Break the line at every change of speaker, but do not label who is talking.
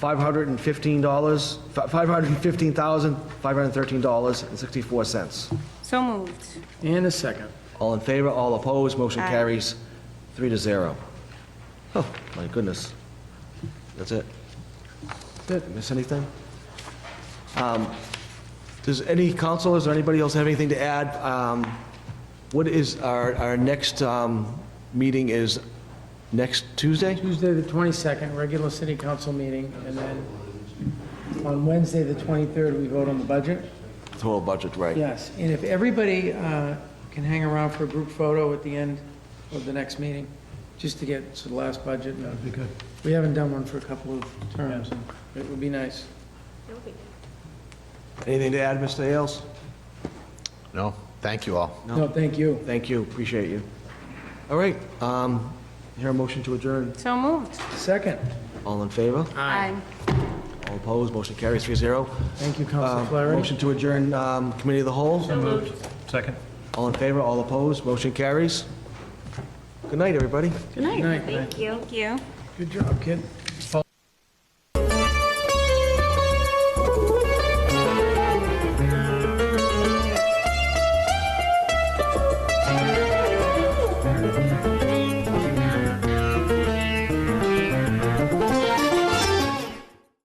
$515, $515,513.64.
So moved.
And a second.
All in favor, all opposed, motion
Aye.
carries three to zero. Oh, my goodness. That's it. Did I miss anything? Um, Does any councilors or anybody else have anything to add? Um, What is, our, our next um, meeting is next Tuesday?
Tuesday, the 22nd, regular city council meeting, and then on Wednesday, the 23rd, we vote on the budget.
Total budget, right.
Yes, and if everybody uh, can hang around for a group photo at the end of the next meeting, just to get to the last budget. That'd be good. We haven't done one for a couple of terms, and it would be nice.
Anything to add, Mr. Ailes?
No, thank you all.
No, thank you.
Thank you, appreciate you. All right, um, here a motion to adjourn.
So moved.
Second,
All in favor?
Aye.
All opposed, motion carries three zero.
thank you,
Uh,
Council Flaherty.
Motion to adjourn um, Committee of the Whole.
Second.
All in favor, all opposed, motion carries. Good night, everybody.
Good night.
Thank you.
Good job, kid.